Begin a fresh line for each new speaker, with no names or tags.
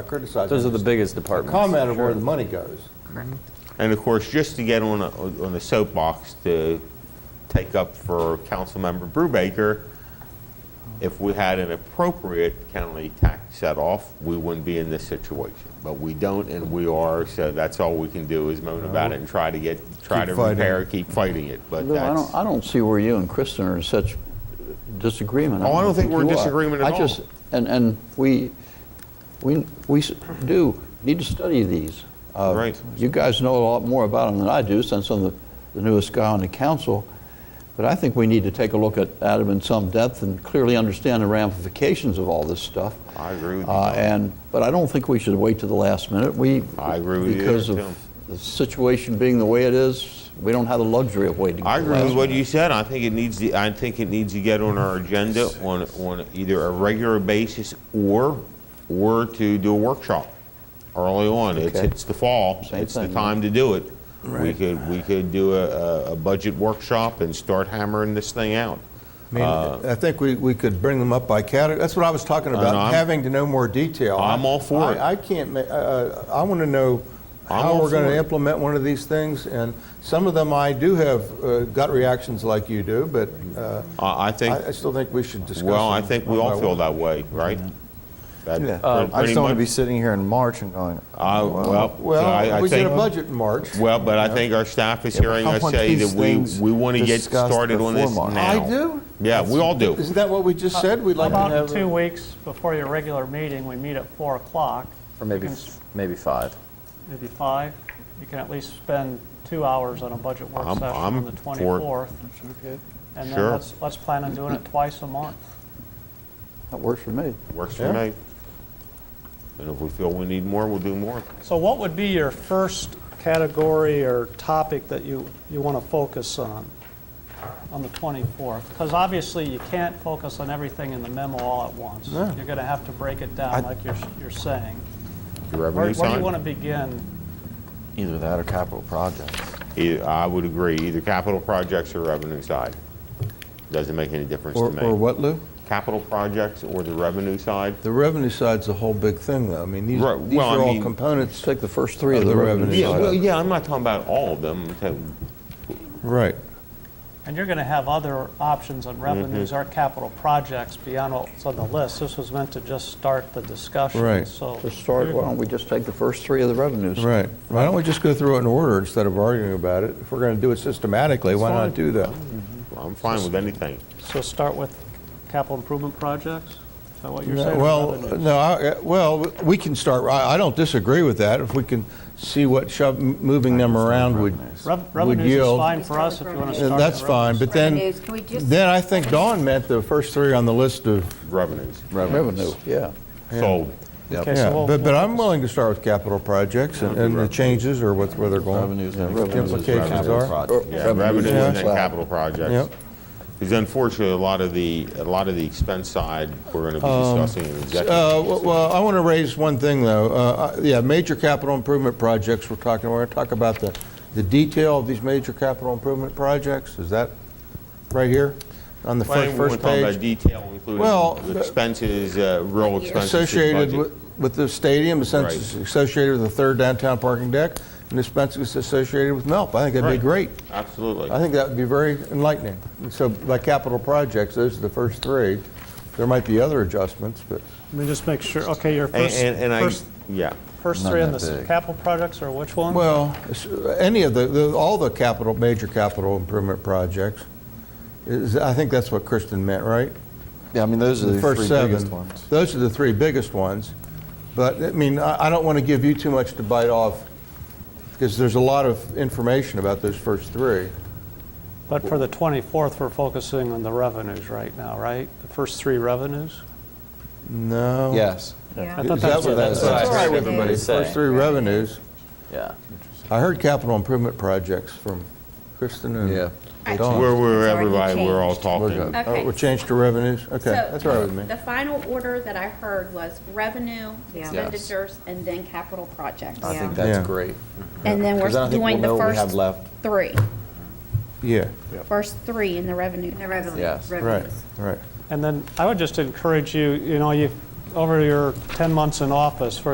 criticizing.
Those are the
this.
biggest departments.
Comment of where the money goes.
And of course, just to get on a, on a soapbox to take up for Councilmember Brubaker, if we had an appropriate county tax set off, we wouldn't be in this situation. But we don't and we are, so that's all we can do is moan about it and try to get, try
Keep
to
fighting.
repair, keep fighting it, but
Uh-huh. Lou, I
that's.
don't, I don't see where you and Kristen are in such disagreement.
Oh, I don't think we're in
you are.
disagreement at
I just,
all.
and, and we, we, we s- do need to study these. Uh,
Right.
You guys know a lot more about them than I do, since I'm the the newest guy on the council. But I think we need to take a look at at them in some depth and clearly understand the ramifications of all this stuff.
I agree with you,
Uh,
Tom.
And, but I don't think we should wait to the last minute. We.
I agree with you there,
Because
Tim.
of the situation being the way it is, we don't have the luxury of waiting.
I
till the
agree with
last
what
minute.
you said. I think it needs to, I think it needs to get on our agenda on, on either a regular basis or, or to do a workshop early on. It's,
Okay.
it's the fall.
Same
It's the
thing.
time to do it. We could, we could do a, a- a budget workshop and start hammering this thing out.
I mean,
Uh,
I think we, we could bring them up by category. That's what I was talking
know,
about,
I'm-
having to know more detail.
I'm all for
I-
it.
I can't, ma- uh, uh, I want to know
I'm
how
all
we're going
for
to
it.
implement one of these things. And some of them I do have uh, gut reactions like you do, but uh,
I, I think,
I I still think we should discuss.
well, I
them
think we
one by
all feel
one.
that way, right? That
Yeah.
pretty-
I just
pretty
don't want to
much-
be sitting here in March and going,
I- well, so I-
Well,
I
we get a
think-
budget in March.
Well, but I think our staff is hearing
I
us
want
say that
these
we,
things
we want to get
discussed
started on
before
this
March.
now.
I do.
Yeah, we all do.
Isn't that what we just said? We'd
How
like to
About in
have.
two
a-
weeks before your regular meeting, we meet at 4 o'clock.
Or maybe, f- maybe five.
Maybe 5. You can at least spend two hours on a budget work
I'm-
session
I'm
on the
for it.
24th. And
Sure.
then let's, let's plan on doing it twice a month.
That works for me.
Works
Yeah.
for me. And if we feel we need more, we'll do more.
So what would be your first category or topic that you, you want to focus on?
on the 24th, because obviously you can't focus on everything in the memo all at once. You're going to have to break it down like you're, you're saying.
The
Where
revenue
where do you want
side,
to begin?
either that or capital projects.
e- I would agree, either capital projects or revenue side. Doesn't make any difference to
Or or
me.
what, Lou?
Capital projects or the revenue side?
The revenue side's a whole big thing, though. I mean, these these
Right, well, I
are all
mean-
Let's
components.
take the first three of
Of
the
the
revenue
revenue.
Yeah, well,
side.
yeah, I'm not talking about all of them. I'm talking-
Right.
And you're going to have other options on
Mm-hmm.
revenues or capital projects beyond what's on the list. This was meant to just start the discussion.
Right.
So
To start, why don't we just take the first three of the revenues?
Right. Why don't we just go through it in order instead of arguing about it? If we're going to do it systematically, why not do that?
I'm fine with anything.
so start with capital improvement projects? Is that what you're saying? or
Well, uh,
revenues?
no, I- well, we can start, I I don't disagree with that. If we can see what shove- moving them around would
Rev-
would
Revenues is
yield.
fine for us if you want to start.
Uh, That's
on
fine, but then,
Revenues, can we just-
then I think Dawn meant the first three on the list of,
Revenues.
Revenue, yeah.
Sold.
Okay, so
yeah.
we'll-
But but I'm willing to start with capital projects and- and the changes or what- where they're going.
Revenues.
Yeah,
and
what the
revenues is
Implications
revenue.
are.
Or
Yeah,
revenues
revenues and then
side.
capital projects.
Yep.
Because unfortunately, a lot of the, a lot of the expense side, we're going to be discussing in executive.
Um, Uh, Well, well, I want to raise one thing, though. Uh, I- Yeah, major capital improvement projects we're talking, we're going to talk about the, the detail of these major capital improvement projects. Is that right here on the
Well,
fir-
we
first
won't talk about
page?
detail,
Well,
including expenses, uh, real expenses.
Associated
budget.
with, with the stadium, the
Right.
census associated with the third downtown parking deck, and the expenses associated with MELP. I think that'd be great.
Right. Absolutely.
I think that would be very enlightening. And So by capital projects, those are the first three. There might be other adjustments, but.
Let me just make sure, okay, your
And,
first,
and- and I,
first,
yeah.
first
Not
three on
that
the
big.
capital projects are which ones?
Well, s- any of the- the, all the capital, major capital improvement projects, is, I think that's what Kristen meant, right?
Yeah, I mean, those are the
The first
three biggest
seven.
ones.
Those are the three biggest ones. But, I mean, I I don't want to give you too much to bite off, because there's a lot of information about those first three.
But for the 24th, we're focusing on the revenues right now, right? The first three revenues?
No.
Yes.
I
Yeah.
thought
Is
that's
that
what
what
that's
that's
what I
heard
Right.
everybody
First
say.
three revenues.
Yeah.
I heard capital improvement projects from Kristen
Yeah.
and Dawn.
We're, we're,
It's already
everybody, we're all
changed.
talking.
Oh,
Okay.
We'll change to revenues? Okay,
So,
that's all right with me.
The final order that I heard was revenue,
Yeah. Yes.
expenditures, and then capital projects.
I think
that's Yeah.
great.
And then
Because I
we're
don't think we'll
doing the
know what we have
first
left.
three,
Yeah,
first three in the revenue.
The revenue-
Yes.
right,
revenues.
right.
And then I would just encourage you, you know, you, over your 10 months in office, for